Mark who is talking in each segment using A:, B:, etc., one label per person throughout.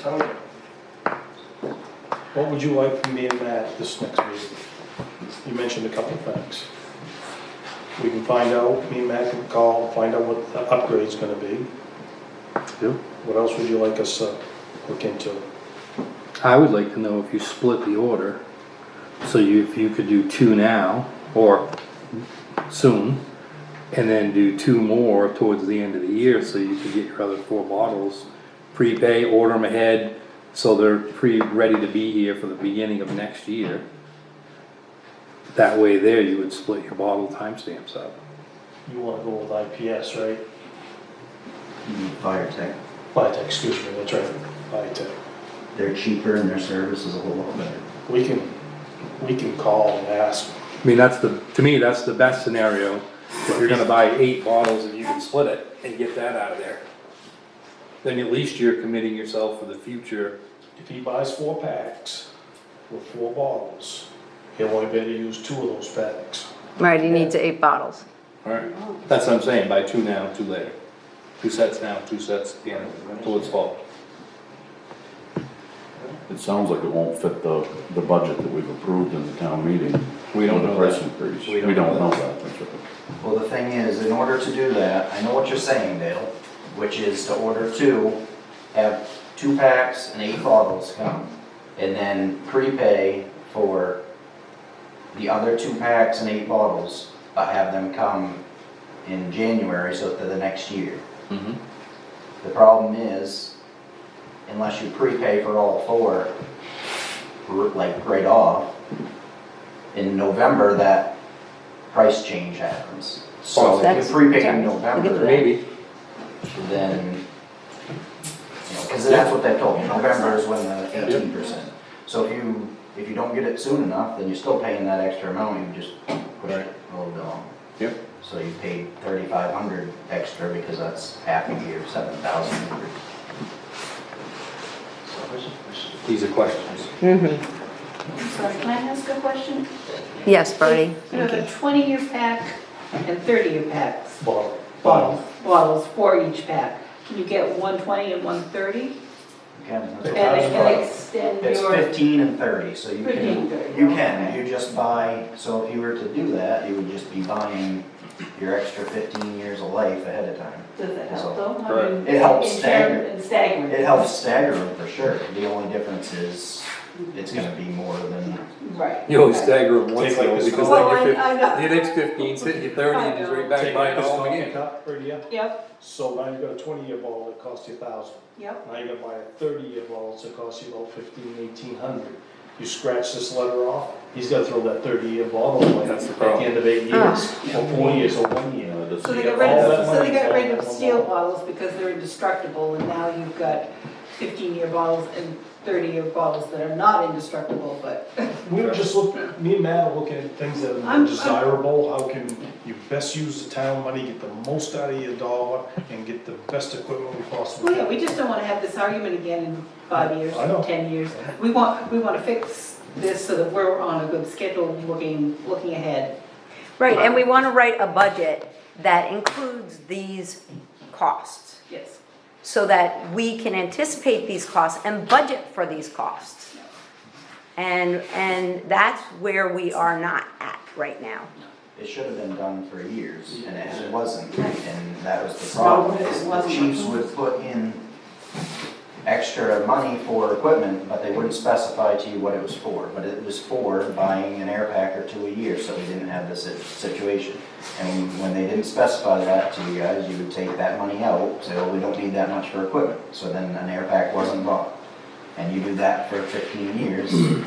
A: So, what would you like from me in that, this next meeting? You mentioned a couple of things. We can find out, me and Matt can call, find out what the upgrade's gonna be.
B: Yeah.
A: What else would you like us to look into?
B: I would like to know if you split the order, so you, if you could do two now, or soon, and then do two more towards the end of the year, so you could get your other four bottles. Prepay, order them ahead, so they're pre, ready to be here for the beginning of next year. That way there, you would split your bottle timestamps up.
A: You wanna go with IPS, right?
C: Fire Tech.
A: Vitek, excuse me, that's right, Vitek.
C: They're cheaper and their service is a whole lot better.
A: We can, we can call and ask.
B: I mean, that's the, to me, that's the best scenario, if you're gonna buy eight bottles and you can split it and get that out of there. Then at least you're committing yourself for the future,
A: If he buys four packs with four bottles, he'll only be able to use two of those packs.
D: Right, he needs eight bottles.
B: alright? That's what I'm saying, buy two now, two later. Two sets now, two sets again, till it's fall.
E: It sounds like it won't fit the, the budget that we've approved in the town meeting.
B: We don't
E: with the
B: know
E: price
B: that.
E: increase.
B: We
E: We
B: don't
E: don't
B: know
E: know
B: that.
E: that. that's right.
C: Well, the thing is, in order to do that, I know what you're saying, Dale, which is to order two, have two packs and eight bottles come, and then prepay for the other two packs and eight bottles, but have them come in January, so for the next year. The problem is, unless you prepay for all four, r- like right off, in November, that price change happens. So if
D: That's-
C: you prepay
D: sorry,
C: in
D: we'll get to
C: November,
B: Maybe,
C: then, because that's what they told me, November is when the eighteen percent. So if you, if you don't get it soon enough, then you're still paying that extra amount, you just push it a little bit longer.
B: yep,
C: So you paid thirty-five hundred extra because that's half a year, seven thousand hundred.
B: these are questions.
D: Mm-hmm.
F: I'm sorry, can I ask a question?
D: Yes, Bernie.
F: You have a 20-year pack and 30-year packs,
A: Bottle.
F: bottles, bottles, four each pack. Can you get 120 and 130?
C: Again,
F: And
C: that's
F: it
C: a
F: can
C: problem.
F: extend
C: It's
F: your,
C: fifteen and thirty, so you
F: 15,
C: can,
F: 30,
C: you can,
F: okay.
C: you just buy, so if you were to do that, you would just be buying your extra fifteen years of life ahead of time.
F: does it help though? I
B: Right.
F: mean,
C: It helps
F: in term-
C: stagger.
F: in staggering.
C: It helps stagger them for sure, the only difference is, it's gonna be more than,
F: Right.
B: You always
F: right.
B: stagger them once
A: Take like
B: though,
A: this
B: because
A: one.
F: Well, I-
B: then
F: I
B: you're
F: know.
B: fifty, the next fifteen's hit you thirty, and it's right back
A: Take like
B: buying it
A: this
B: all
A: coffee
B: again.
A: cup right here.
F: Yep,
A: So now you've got a twenty-year bottle that costs you a thousand.
F: yep.
A: Now you gotta buy a thirty-year bottle that costs you about fifteen, eighteen hundred. You scratch this letter off, he's gotta throw that thirty-year bottle away at
B: That's the
A: the
B: problem.
A: end of eight
F: Ah.
A: years, or four years, or one
E: You
A: year.
E: know,
F: So
E: that's-
F: they
A: get
F: got rid
A: all that
F: of, so
A: money
F: they got
A: for
F: rid
A: that
F: of
A: one
F: steel
A: bottle.
F: bottles because they're indestructible and now you've got 15-year bottles and 30-year bottles that are not indestructible, but
A: We were just looking, me and Matt are looking at things that are
F: I'm- I'm-
A: more desirable, how can you best use the town money, get the most out of your dollar, and get the best equipment we possibly
F: Well,
A: can.
F: yeah, we just don't wanna have this argument again in five years,
A: I know.
F: ten years. We want, we wanna fix this so that we're on a good schedule, looking, looking ahead.
D: Right, and we want to write a budget that includes these costs
F: Yes.
D: so that we can anticipate these costs and budget for these costs. And, and that's where we are not at right now.
C: it should have been done for years, and it wasn't. And that was the problem, is the chiefs would put in extra money for equipment, but they wouldn't specify to you what it was for. But it was for buying an air pack or two a year, so we didn't have this sit- situation. And when they didn't specify that to you guys, you would take that money out, say, well, we don't need that much for equipment. So then an air pack wasn't bought. And you do that for fifteen years, and you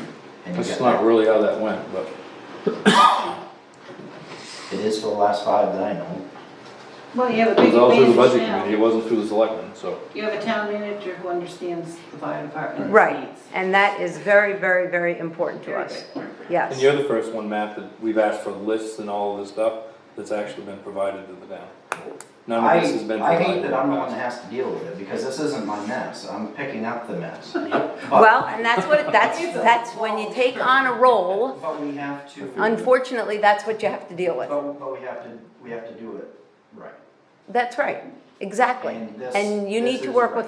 B: That's
C: get
B: not
C: that.
B: really how that went, but.
C: It is for the last five that I know.
F: Well, you have a
B: It
F: big
B: was all through the budget
F: advantage
B: committee,
F: now.
B: it wasn't through the selectmen, so.
F: You have a town manager who understands the fire department's
D: Right,
F: needs.
D: and that is very, very, very important to us. Yes.
B: And you're the first one, Matt, that we've asked for lists and all of this stuff that's actually been provided to the town. None
C: I,
B: of this has been
C: I
B: provided.
C: hate that I'm the one
B: in
C: that
B: the
C: has to deal with it, because this isn't my mess, I'm picking up the mess. But,
D: Well, and that's what, that's, that's when you take on a role,
C: but we have to, but,
D: unfortunately, that's what you have to deal with.
C: but we have to, we have to do it right.
D: That's right, exactly.
C: And this-
D: And you
C: this
D: need to
C: is
D: work
C: right.
D: with